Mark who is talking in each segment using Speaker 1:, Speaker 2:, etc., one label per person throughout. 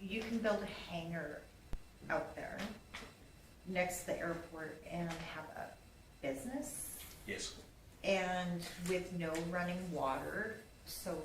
Speaker 1: you can build a hangar out there next to the airport and have a business
Speaker 2: Yes.
Speaker 1: and with no running water, so,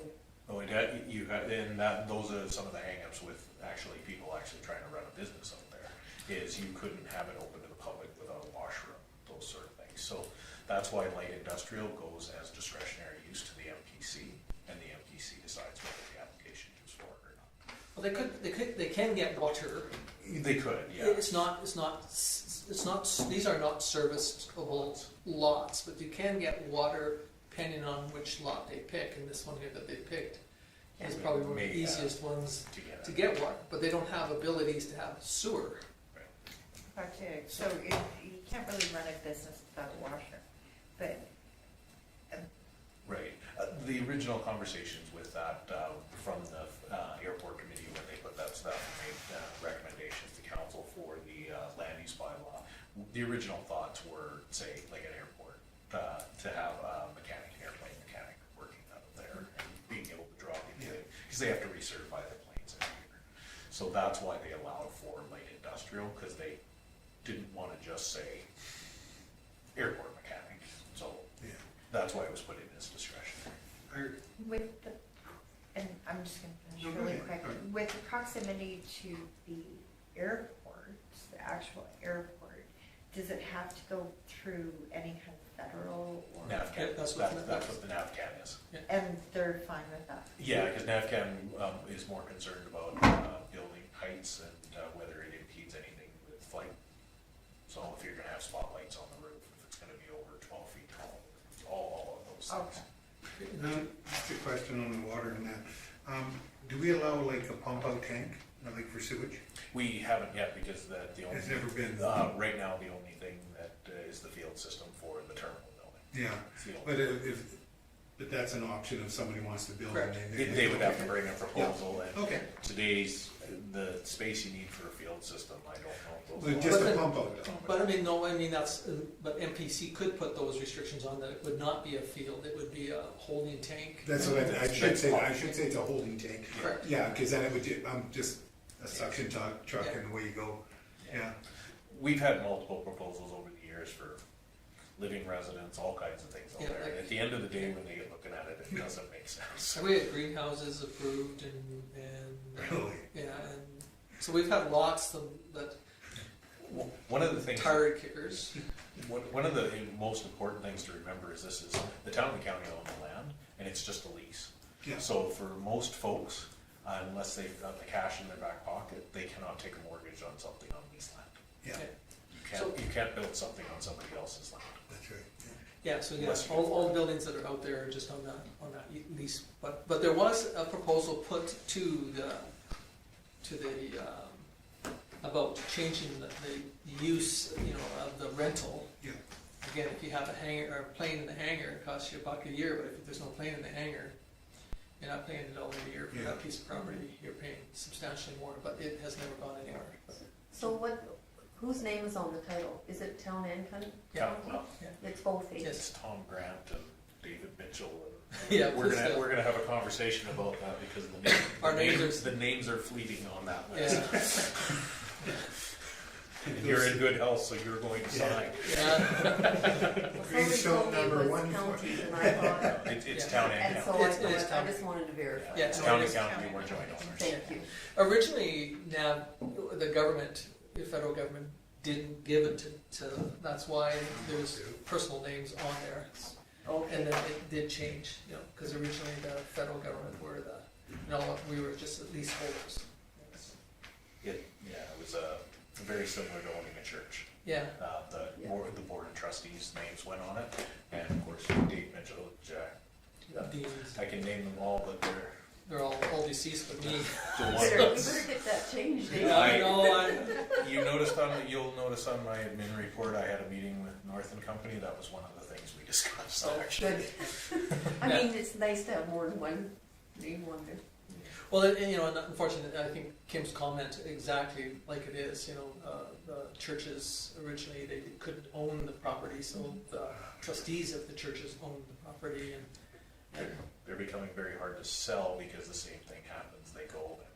Speaker 2: Oh, it had, you had, and that, those are some of the hangups with actually people actually trying to run a business out there, is you couldn't have it open to the public without a washroom, those sort of things. So that's why light industrial goes as discretionary use to the MPC, and the MPC decides whether the application is for it or not.
Speaker 3: Well, they could, they could, they can get water.
Speaker 2: They could, yeah.
Speaker 3: It's not, it's not, s- it's not, s- these are not serviceable lots, but you can get water depending on which lot they pick, and this one here that they picked is
Speaker 2: Yeah,
Speaker 3: probably one of
Speaker 2: may
Speaker 3: the
Speaker 2: have
Speaker 3: easiest ones
Speaker 2: To get.
Speaker 3: to
Speaker 2: it.
Speaker 3: get water, but they don't have abilities to have sewer.
Speaker 2: Right.
Speaker 1: but, uh, so it, you can't really run a business without a washer. But
Speaker 2: Right. Uh, The original conversations with that, uh, from the uh, airport committee, when they put that stuff, and made uh, recommendations to council for the uh, land use bylaw, the original thoughts were, say, like an airport, uh, to have a mechanic, an airplane mechanic working out of there and being able to draw the, because they have to recertify their planes every year. So that's why they allowed for light industrial, because they didn't want to just say airport mechanic. So
Speaker 4: Yeah,
Speaker 2: that's why it was put in as discretion.
Speaker 4: I,
Speaker 1: with the, and I'm just gonna finish
Speaker 4: No, go
Speaker 1: really
Speaker 4: ahead.
Speaker 1: quick,
Speaker 4: Alright.
Speaker 1: with the proximity to the airport, the actual airport, does it have to go through any kind of federal or?
Speaker 2: NAVCAM, that's,
Speaker 3: That's what-
Speaker 2: that's what the NAVCAM is.
Speaker 1: And they're fine with that?
Speaker 2: Yeah, because NAVCAM um, is more concerned about uh, building heights and uh, whether it impedes anything with flight. So if you're gonna have spotlights on the roof, if it's gonna be over twelve feet tall, all, all of those
Speaker 1: Okay.
Speaker 2: things.
Speaker 4: um, just a question on the water and that, um, do we allow like a pump out tank, uh, like for sewage?
Speaker 2: We haven't yet because the, the only.
Speaker 4: It's never been-
Speaker 2: Uh, right now, the only thing that uh, is the field system for the terminal building.
Speaker 4: Yeah,
Speaker 2: It's the only-
Speaker 4: but if, if, but that's an option if somebody wants to build. and
Speaker 2: They- They would have to bring a proposal and
Speaker 4: Okay,
Speaker 2: today's, the space you need for a field system, I don't know.
Speaker 4: Well,
Speaker 2: if those
Speaker 4: just
Speaker 3: But
Speaker 4: a
Speaker 3: the-
Speaker 4: pump out, though.
Speaker 3: But I mean, no, I mean, that's, uh, but MPC could put those restrictions on that it would not be a field, it would be a holding tank.
Speaker 4: that's what I, I should
Speaker 2: That's-
Speaker 4: say, I should say it's a holding tank.
Speaker 3: Correct.
Speaker 4: Yeah, cause then it would, ju- um, just a suction tuck, truck and away you go, yeah,
Speaker 2: We've had multiple proposals over the years for living residents, all kinds of things out
Speaker 3: Yeah,
Speaker 2: there.
Speaker 3: like-
Speaker 2: And at the end of the day, when they get looking at it, it doesn't make sense.
Speaker 3: So we had greenhouses approved and, and,
Speaker 4: really.
Speaker 3: yeah, and, so we've had lots of, that
Speaker 2: One of the things.
Speaker 3: tire kickers.
Speaker 2: One, one of the most important things to remember is this is, the town and county own the land, and it's just a lease.
Speaker 4: Yeah.
Speaker 2: So for most folks, uh, unless they've got the cash in their back pocket, they cannot take a mortgage on something on lease land.
Speaker 4: Yeah,
Speaker 2: You can't, you can't build something on somebody else's land.
Speaker 4: that's right, yeah.
Speaker 3: Yeah, so yeah,
Speaker 2: Unless you
Speaker 3: all,
Speaker 2: can
Speaker 3: all
Speaker 2: afford it.
Speaker 3: buildings that are out there are just on that, on that e- lease, but, but there was a proposal put to the, to the, um, about changing the, the use, you know, of the rental.
Speaker 4: Yeah.
Speaker 3: Again, if you have a hangar, or a plane in the hangar, it costs you a buck a year, but if there's no plane in the hangar, you're not paying a dollar a year for
Speaker 4: Yeah.
Speaker 3: that piece of property, you're paying substantially more, but it has never gone anywhere.
Speaker 5: So what, whose name is on the title? Is it town and county?
Speaker 3: Yeah.
Speaker 2: Well,
Speaker 5: It's both, eh?
Speaker 3: Yes.
Speaker 2: It's Tom Grant and David Mitchell. and-
Speaker 3: Yeah,
Speaker 2: We're
Speaker 3: please
Speaker 2: gonna,
Speaker 3: don't.
Speaker 2: we're gonna have a conversation about that because the names.
Speaker 3: Our names are-
Speaker 2: The names are fleeting on that list.
Speaker 3: Yeah,
Speaker 2: And you're in good health, so you're going to sign.
Speaker 3: yeah,
Speaker 5: Well,
Speaker 4: Green
Speaker 5: somebody
Speaker 4: Stone
Speaker 5: told me it
Speaker 4: number
Speaker 5: was
Speaker 4: one
Speaker 5: county,
Speaker 4: for-
Speaker 5: and I thought,
Speaker 2: It's, it's
Speaker 3: Yeah.
Speaker 2: town and
Speaker 5: and so
Speaker 2: county.
Speaker 5: I
Speaker 3: It's- it is
Speaker 5: thought, I
Speaker 3: county.
Speaker 5: just wanted to verify.
Speaker 3: Yeah,
Speaker 2: It's
Speaker 3: no,
Speaker 2: town
Speaker 3: it
Speaker 2: and
Speaker 3: is
Speaker 2: county,
Speaker 1: county.
Speaker 2: we're joint owners.
Speaker 5: Thank you.
Speaker 3: originally, now, the government, the federal government didn't give it to, to, that's why there's personal names on there. And
Speaker 5: Okay,
Speaker 3: then it did change, you know, because originally the federal government were the, no, we were just the lease holders.
Speaker 2: It, yeah, it was, uh, very similar to owning a church.
Speaker 3: Yeah,
Speaker 2: Uh, the
Speaker 5: Yeah.
Speaker 2: board, the board of trustees' names went on it, and of course, Dave Mitchell, Jack.
Speaker 3: these,
Speaker 2: I can name them all, but they're
Speaker 3: they're all, all deceased but me.
Speaker 2: the
Speaker 5: we
Speaker 2: ones.
Speaker 5: better we better get that changed, eh?
Speaker 2: I-
Speaker 3: I know, I,
Speaker 2: You noticed on, the- you'll notice on my admin report, I had a meeting with North and Company, that was one of the things we discussed,
Speaker 3: Oh,
Speaker 2: actually.
Speaker 5: Good. I mean, it's nice to have more than one name on there.
Speaker 3: Well, and, and, you know, and unfortunately, I think Kim's comment exactly like it is. You know, uh, the churches originally they couldn't own the property, so the trustees of the churches owned the property, and, and
Speaker 2: They're becoming very hard to sell because the same thing happens, they go and